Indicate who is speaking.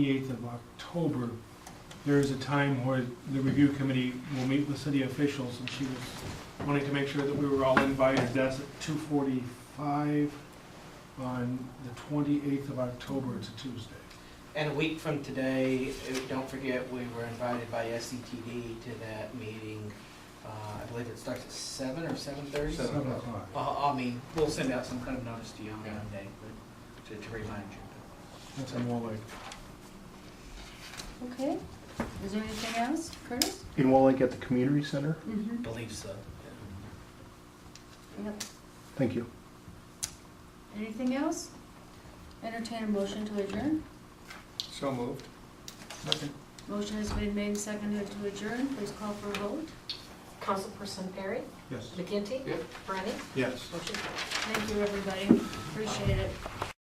Speaker 1: 28th of October, there is a time where the review committee will meet with city officials, and she was wanting to make sure that we were all invited. That's at 2:45 on the 28th of October, it's a Tuesday.
Speaker 2: And a week from today, uh, don't forget, we were invited by SCTD to that meeting. Uh, I believe it starts at seven or seven thirty? Uh,
Speaker 1: 7 o'clock.
Speaker 2: I mean, we'll send out some kind of notice to you on that day, but to, to remind you.
Speaker 1: That's in Wall Lake.
Speaker 3: Okay, is there anything else, Curtis?
Speaker 4: In Wall Lake at the community center?
Speaker 3: Mm-hmm.
Speaker 2: Believe so.
Speaker 3: Yep,
Speaker 4: Thank you.
Speaker 3: anything else? Entertain a motion to adjourn.
Speaker 5: So moved.
Speaker 3: Motion has been made, and seconded to adjourn, please call for a vote.
Speaker 6: Councilperson Perry?
Speaker 1: Yes.
Speaker 6: McGinty?
Speaker 5: Yep.
Speaker 6: Brennan?
Speaker 5: Yes.
Speaker 6: Motion carries.
Speaker 3: Thank you, everybody, appreciate it.